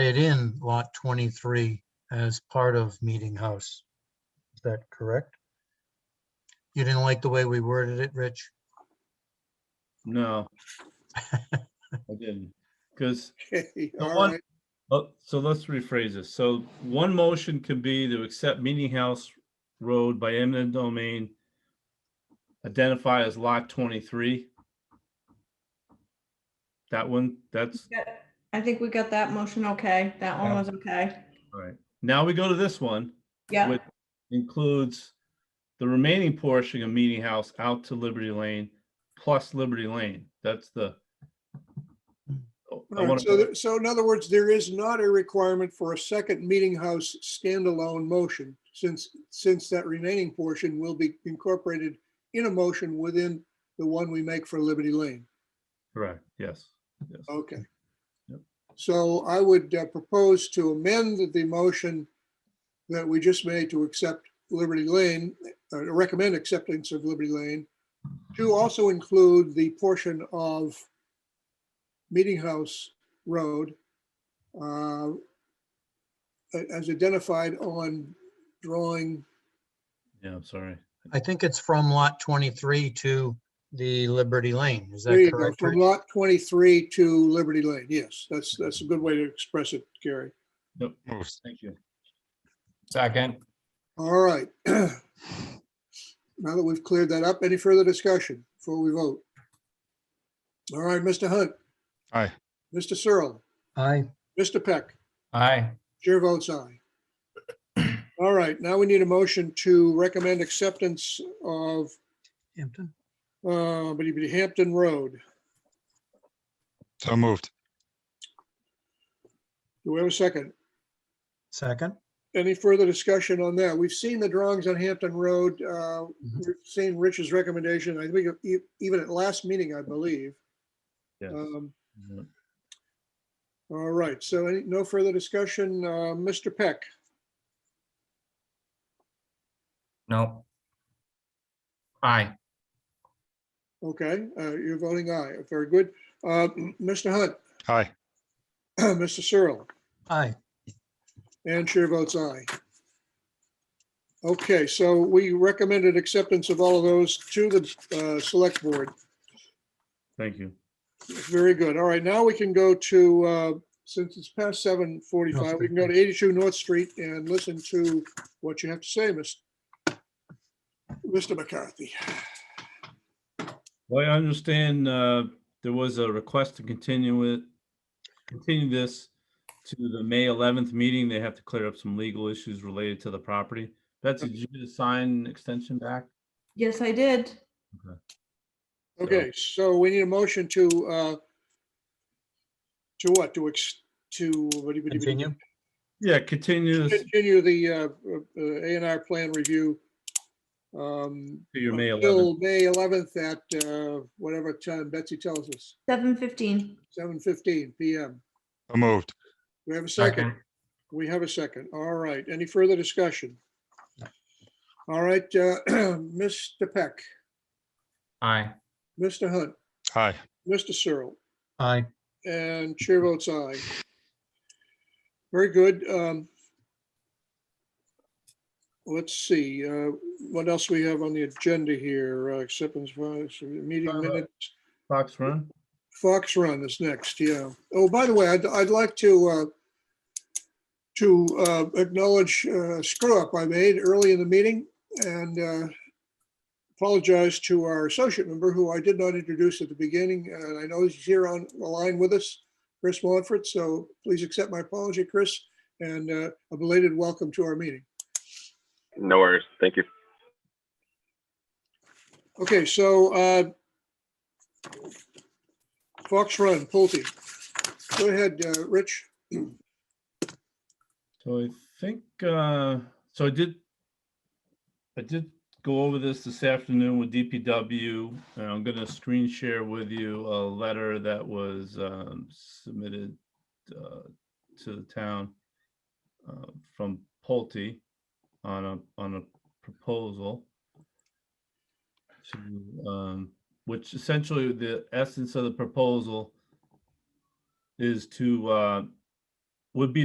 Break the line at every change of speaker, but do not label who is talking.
added in lot 23 as part of Meeting House. Is that correct? You didn't like the way we worded it, Rich?
No. I didn't, because,
Okay,
The
all
one-
right.
so let's rephrase this. So one motion could be to accept Meeting House Road by eminent domain identify as lot twenty-three. That one, that's,
Yeah, I think we got that motion okay. That one
Yeah.
was okay.
all right. Now we go to this one,
Yeah,
which includes the remaining portion of Meeting House out to Liberty Lane plus Liberty Lane. That's the. Oh, I
All right,
wanna-
So, there- so in other words, there is not a requirement for a second meeting house standalone motion, since, since that remaining portion will be incorporated in a motion within the one we make for Liberty Lane.
Correct, yes. yes.
Okay.
Yep.
So I would uh, propose to amend the motion that we just made to accept Liberty Lane, uh, to recommend acceptance of Liberty Lane, to also include the portion of Meeting House Road uh, a- as identified on drawing,
Yeah, I'm sorry.
I think it's from lot 23 to the Liberty Lane. Is
there
that
you go,
correct?
from
Rich?
lot 23 to Liberty Lane. Yes, that's, that's a good way to express it, Gary.
Thank you.
Second,
All right. Now that we've cleared that up, any further discussion before we vote? All right, Mr. Hunt.
Aye.
Mr. Searle,
Aye.
Mr. Peck,
aye.
chair votes aye. All right, now we need a motion to recommend acceptance of
Hampton?
uh, bitty bitty Hampton Road.
So moved.
Do we have a second?
Second?
Any further discussion on that? We've seen the drawings on Hampton Road. uh, We've seen Rich's recommendation, I think e- even at last meeting, I believe.
Yes.
Um,
Yeah.
All right, so any- no further discussion. Uh, Mr. Peck,
No. Aye,
okay, uh, you're voting aye. Very good. Uh, Mr. Hunt,
Aye.
Mr. Searle,
Aye.
and chair votes aye. Okay, so we recommended acceptance of all of those to the uh, select board.
Thank you.
Very good. All right, now we can go to, uh, since it's past 7:45, we can go to 82 North Street and listen to what you have to say, Mr. Mr. McCarthy.
Well, I understand uh, there was a request to continue it, continue this to the May 11th meeting. They have to clear up some legal issues related to the property. Betsy, did you just sign an extension back?
yes, I did.
Okay, so we need a motion to, uh, to what? To ex, to. what do you- what do you-
Continue?
Yeah, continue this
Continue the uh, uh, A and R plan review. um,
to your May 11th.
Till May 11th at uh, whatever time Betsy tells us,
Seven fifteen.
7:15 PM.
So moved.
We have a second.
second,
We have a second. All right. Any further discussion? All right, uh, Mr. Peck,
aye.
Mr. Hunt,
Aye.
Mr. Searle.
Aye.
And chair votes aye. Very good. um, Let's see, uh, what else we have on the agenda here? Uh, Acceptance of uh, meeting
Uh,
minutes.
Fox Run?
Fox Run is next, yeah. Oh, by the way, I'd, I'd like to uh, to uh, acknowledge a screw up I made early in the meeting and uh, apologize to our associate member who I did not introduce at the beginning. And I know he's here on the line with us, Chris Montfort. So please accept my apology, Chris, and uh, a belated welcome to our meeting.
No worries. Thank you.
Okay, so uh, Fox Run, Pulte. Go ahead, uh, Rich.
So I think, uh, so I did, I did go over this this afternoon with DPW. And I'm gonna screen share with you a letter that was, um, submitted, uh, to the town uh, from Pulte on a, on a proposal to, um, which essentially the essence of the proposal is to, uh, would be